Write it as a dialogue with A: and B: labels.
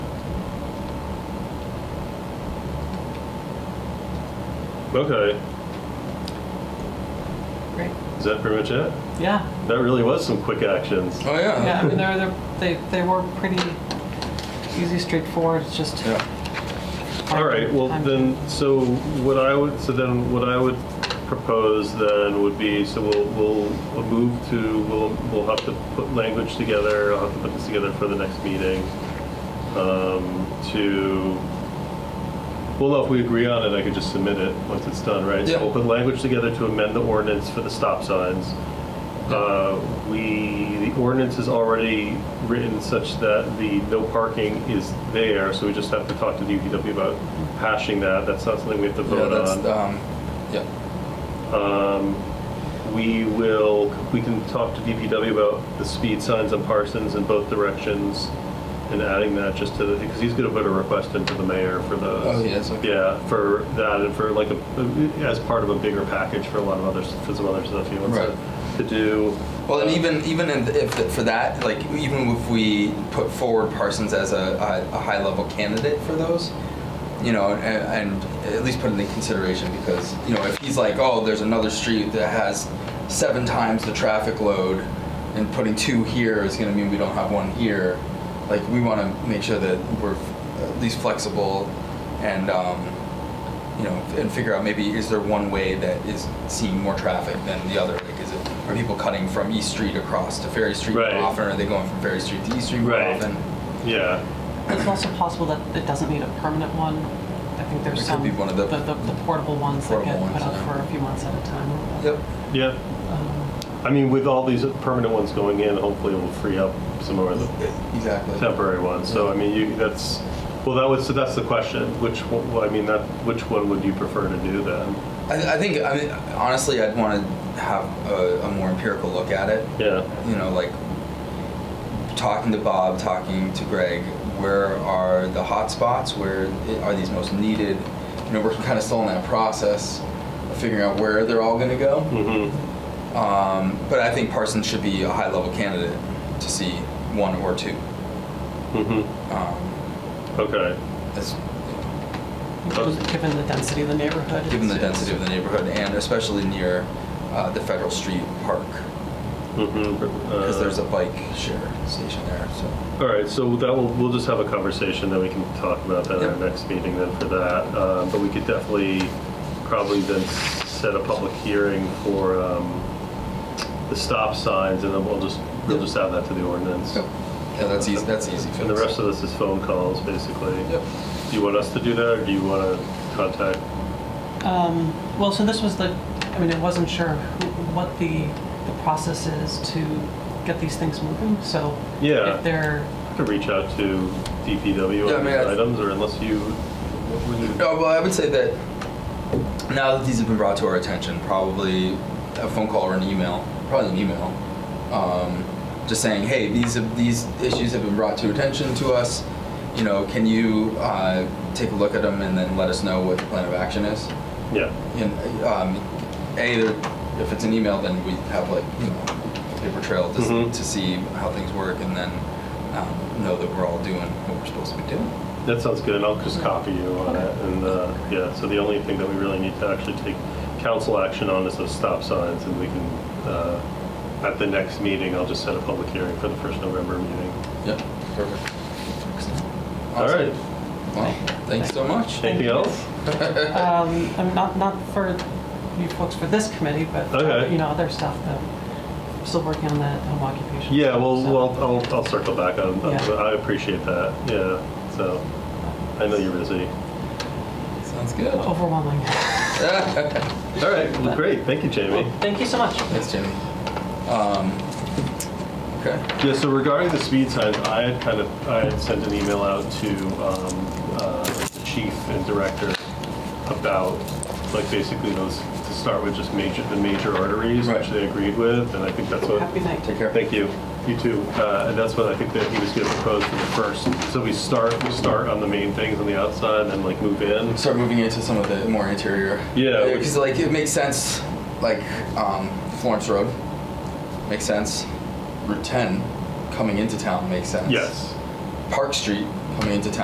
A: Okay,
B: Great.
A: is that pretty much it?
B: Yeah.
A: That really was some quick actions.
C: Oh, yeah.
B: Yeah, I mean, they're, they're, they, they were pretty easy, straightforward, it's just.
C: Yeah.
A: All right, well
B: Time.
A: then, so what I would, so then what I would propose then would be, so we'll, we'll, we'll move to, we'll, we'll have to put language together, I'll have to put this together for the next meeting. Um, to, well, no, if we agree on it, I could just submit it once it's done, right?
C: Yeah.
A: So we'll put language together to amend the ordinance for the stop signs. Uh, We, the ordinance is already written such that the no parking is there, so we just have to talk to DPW about hashing that. That's not something we have to
C: Yeah,
A: vote
C: that's,
A: on.
C: um, yeah.
A: Um, We will, we can talk to DPW about the speed signs on Parsons in both directions and adding that just to the, because he's going to put a request into the mayor for those.
C: Oh, yes, okay.
A: Yeah, for that and for like a, as part of a bigger package for a lot of others, for some other stuff he wants to-
C: Right.
A: to do.
C: Well, and
A: Uh,
C: even even in if for that, like even if we put forward Parsons as a, a, a high level candidate for those, you know, and, and at least put it into consideration because you know if he's like, oh, there's another street that has seven times the traffic load, and putting two here is going to mean we don't have one here. Like we want to make sure that we're at least flexible, and um, you know, and figure out maybe is there one way that is seeing more traffic than the other? Like, is it are people cutting from East Street across to Ferry Street more
A: Right.
C: often? Are they going from Ferry Street to East Street more
A: Right.
C: often?
A: Yeah.
B: It's also possible that it doesn't need a permanent one. I think
C: It
B: there's
C: could
B: some.
C: be one of the-
B: The, the portable ones that
C: Portable
B: get put
C: ones,
B: up
C: yeah.
B: for a few months at a time.
C: Yep.
A: Yeah. I mean, with all these permanent ones going in, hopefully we'll free up some more of the
C: Exactly.
A: temporary ones. So I mean, you, that's well, that was so that's the question. Which one, well, I mean, that which one would you prefer to do then?
C: I, I think I mean honestly, I'd want to have a, a more empirical look at it.
A: Yeah.
C: you know, like talking to Bob, talking to Greg, where are the hot spots? Where i- are these most needed? You know, we're kind of still in that process of figuring out where they're all going to go.
A: Mm-hmm.
C: Um, but I think Parsons should be a high level candidate to see one or two.
A: Mm-hmm.
C: Um,
A: Okay.
C: as,
B: Given- Given the density of the neighborhood.
C: Uh, given the
B: it's-
C: density of the neighborhood and especially near uh, the Federal Street Park,
A: Mm-hmm.
C: because there's a bike share station there. So,
A: All right, so that will, we'll just have a conversation, then we can talk about that at our
C: Yep.
A: next meeting then for that. Um, But we could definitely, probably then set a public hearing for um, the stop signs, and then we'll just, we'll
C: Yep.
A: just add that to the ordinance.
C: Yep. yeah, that's easy. That's easy.
A: And the
C: fix.
A: rest of this is phone calls, basically.
C: Yep.
A: Do you want us to do that, or do you want to contact?
B: Um, well, so this was the, I mean, I wasn't sure who, what the, the process is to get these things moving, so.
A: Yeah.
B: If they're,
A: I could reach out to DPW
C: Yeah, I
A: on
C: mean,
A: these
C: I-
A: items, or unless you, what would you-
C: No, well, I would say that now that these have been brought to our attention, probably a phone call or an email, probably an email, um, just saying, hey, these have, these issues have been brought to attention to us. You know, can you uh, take a look at them and then let us know what the plan of action is?
A: yeah.
C: And um, a, there- if it's an email, then we have like you know a paper trail to, s-
A: Mhm.
C: to see how things work, and then um, know that we're all doing what we're supposed to be doing.
A: That sounds good, and I'll just copy you on it, and, uh, yeah, so the only thing that we really need to actually take council action on is those stop signs, and we can, uh, at the next meeting, I'll just set a public hearing for the first November meeting.
C: Yep. Perfect.
A: All
C: Awesome.
A: right,
C: Well, thanks so much.
A: anything else?
B: um, I'm not, not for you folks for this committee, but, uh,
A: Okay.
B: you know, other stuff that, I'm still working on that home occupation.
A: Yeah,
B: stuff,
A: well,
B: so.
A: well, I'll, I'll circle back on, on-
B: Yeah.
A: I appreciate that, yeah, so, I know you're busy.
C: Sounds good.
B: Overwhelming.
A: All right, well, great, thank you, Jamie.
B: Thank you so much.
C: Thanks, Jimmy. Um, okay.
A: Yeah, so regarding the speed signs, I had kind of, I had sent an email out to um, uh, the chief and director about, like, basically those, to start with, just major, the major arteries, which
C: Right.
A: they agreed with, and I think that's what.
B: Happy night.
C: Take care.
A: Thank you. You too. Uh, And that's what I think that he was going to propose for the first. So we start, we start on the main things on the outside, and then like move in.
C: Start moving into some of the more interior.
A: Yeah, we-
C: Because like it makes sense. Like um, Florence Road makes sense. Route 10 coming into town makes sense.
A: Yes.
C: Park Street coming into town.